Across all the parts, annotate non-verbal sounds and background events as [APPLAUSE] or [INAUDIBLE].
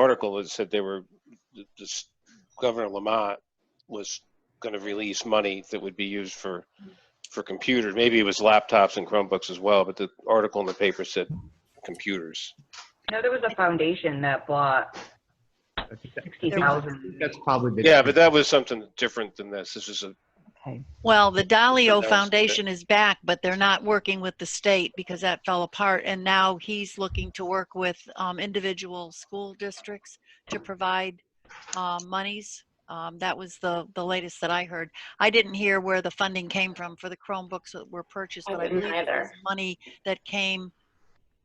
article that said they were, th- this Governor Lamont was going to release money that would be used for, for computers. Maybe it was laptops and Chromebooks as well, but the article in the paper said computers. No, there was a foundation that bought I think that- sixty thousand. That's probably. the- Yeah, but that was something different than this. This is a, Well, the that Dalio was the- Foundation is back, but they're not working with the state because that fell apart. And now he's looking to work with um, individual school districts to provide um, monies. Um, That was the, the latest that I heard. I didn't hear where the funding came from for the Chromebooks that were purchased, I but I didn't believe it was either. money that came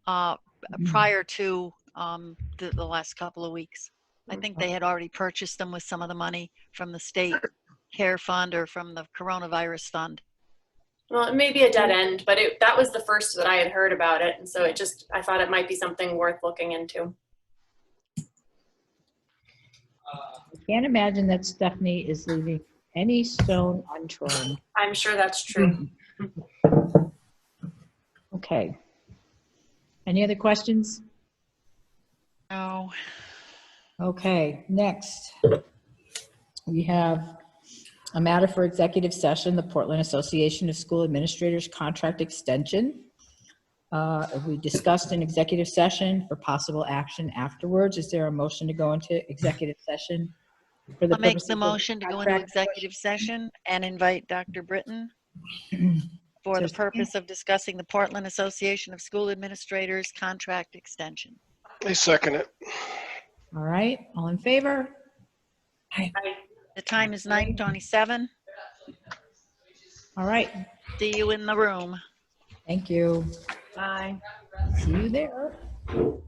uh, prior to um, the, the last couple of weeks. I think they had already purchased them with some of the money from the state care fund or from the coronavirus fund. Well, it may be a dead end, but it, that was the first that I had heard about it, and so it just I thought it might be something worth looking into. Can't imagine that Stephanie is leaving any stone unturned. I'm sure that's Hmm. true. Okay. Any other questions? Oh, Okay, next. We have a matter for executive session, the Portland Association of School Administrators Contract Extension. Uh, We discussed an executive session for possible action afterwards. Is there a motion to go into executive session? for I'll make purposes the of motion to go into contract? executive session and invite Dr. Britton for the Just a second. purpose of discussing the Portland Association of School Administrators contract extension. I second it. [CLEARS THROAT] All right, all in favor? The time is 9:27. All right, See you in the room. thank you. Bye. See you there.